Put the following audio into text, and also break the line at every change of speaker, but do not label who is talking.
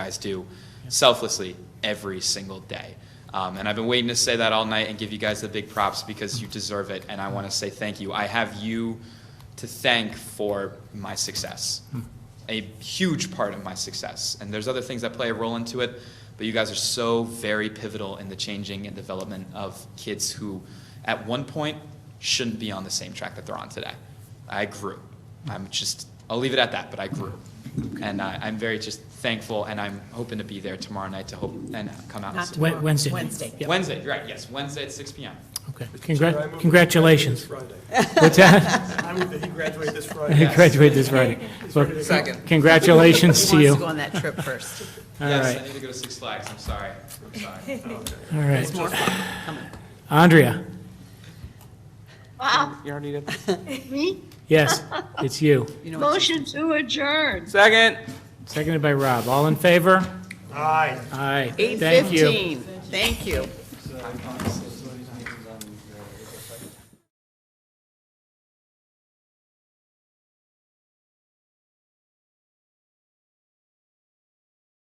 guys do selflessly every single day. Um, and I've been waiting to say that all night and give you guys the big props because you deserve it. And I want to say thank you. I have you to thank for my success, a huge part of my success. And there's other things that play a role into it, but you guys are so very pivotal in the changing and development of kids who, at one point, shouldn't be on the same track that they're on today. I grew. I'm just, I'll leave it at that, but I grew. And I, I'm very just thankful, and I'm hoping to be there tomorrow night to hope and come out. and
Not
see-
tomorrow.
Wed- Wednesday.
Wednesday.
Yeah,
Wednesday, you're right, yes, Wednesday at 6 PM.
okay.
Chair, I move
Congrat-
we
Congratulations.
graduate this
What's that?
Friday. I move that he graduate this Friday.
Yes.
Graduate this Friday. Well,
Second.
Congratulations
Who
to
wants
you.
to go
All
on that trip first?
Yes, I
right,
need to go to Six Flags, I'm sorry, I'm sorry.
all right.
More fun.
Andrea,
Wow,
You already did.
me?
yes, it's you.
You know what you-
Motion to adjourn.
Second.
Seconded by Rob. All in favor?
Aye.
Aye. Thank you.
8:15. Thank you.